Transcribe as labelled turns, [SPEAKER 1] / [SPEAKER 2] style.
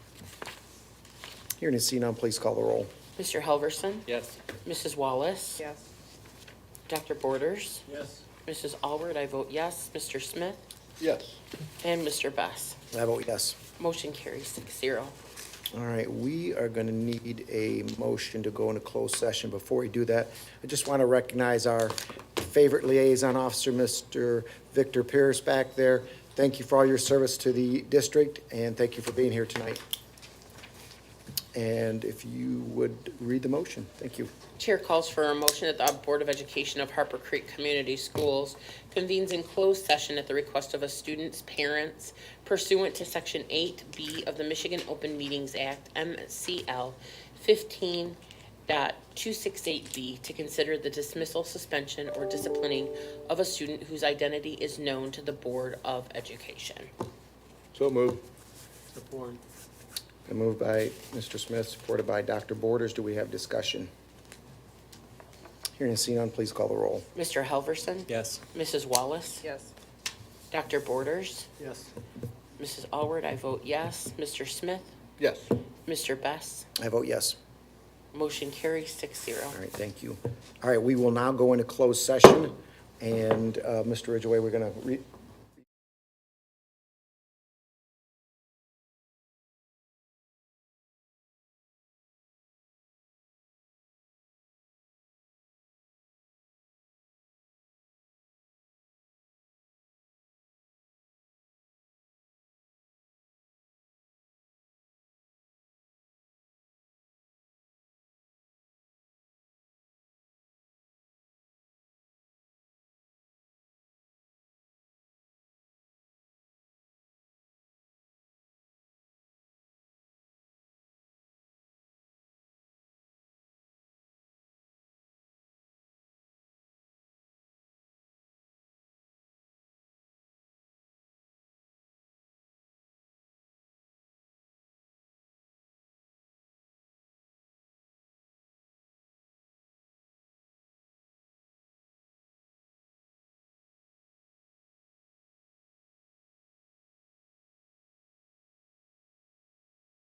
[SPEAKER 1] Hearing and seeing none, please call the roll.
[SPEAKER 2] Mr. Helverson?
[SPEAKER 3] Yes.
[SPEAKER 2] Mrs. Wallace?
[SPEAKER 4] yes,
[SPEAKER 2] Dr. Borders?
[SPEAKER 3] Yes.
[SPEAKER 2] Mrs. Alward, I vote yes. Mr. Smith?
[SPEAKER 3] Yes.
[SPEAKER 2] And Mr. Best.
[SPEAKER 1] I vote yes.
[SPEAKER 2] Motion carries six zero.
[SPEAKER 1] All right, we are going to need a motion to go into closed session. Before we do that, I just want to recognize our favorite liaison officer, Mr. Victor Pierce back there. Thank you for all your service to the district, and thank you for being here tonight. And if you would read the motion, thank you.
[SPEAKER 2] Chair calls for a motion that the Board of Education of Harper Creek Community Schools convenes in closed session at the request of a student's parents pursuant to Section 8B of the Michigan Open Meetings Act, MCL 15.268B, to consider the dismissal, suspension, or disciplining of a student whose identity is known to the Board of Education.
[SPEAKER 3] So move. Support.
[SPEAKER 1] A move by Mr. Smith, supported by Dr. Borders. Do we have discussion? Hearing and seeing none, please call the roll.
[SPEAKER 2] Mr. Helverson?
[SPEAKER 3] Yes.
[SPEAKER 2] Mrs. Wallace?
[SPEAKER 4] yes,
[SPEAKER 2] Dr. Borders?
[SPEAKER 3] Yes.
[SPEAKER 2] Mrs. Alward, I vote yes. Mr. Smith?
[SPEAKER 3] Yes.
[SPEAKER 2] Mr. Best?
[SPEAKER 1] I vote yes.
[SPEAKER 2] Motion carries six zero.
[SPEAKER 1] All right, thank you. All right, we will now go into closed session, and uh, Mr. Ridgway, we're going to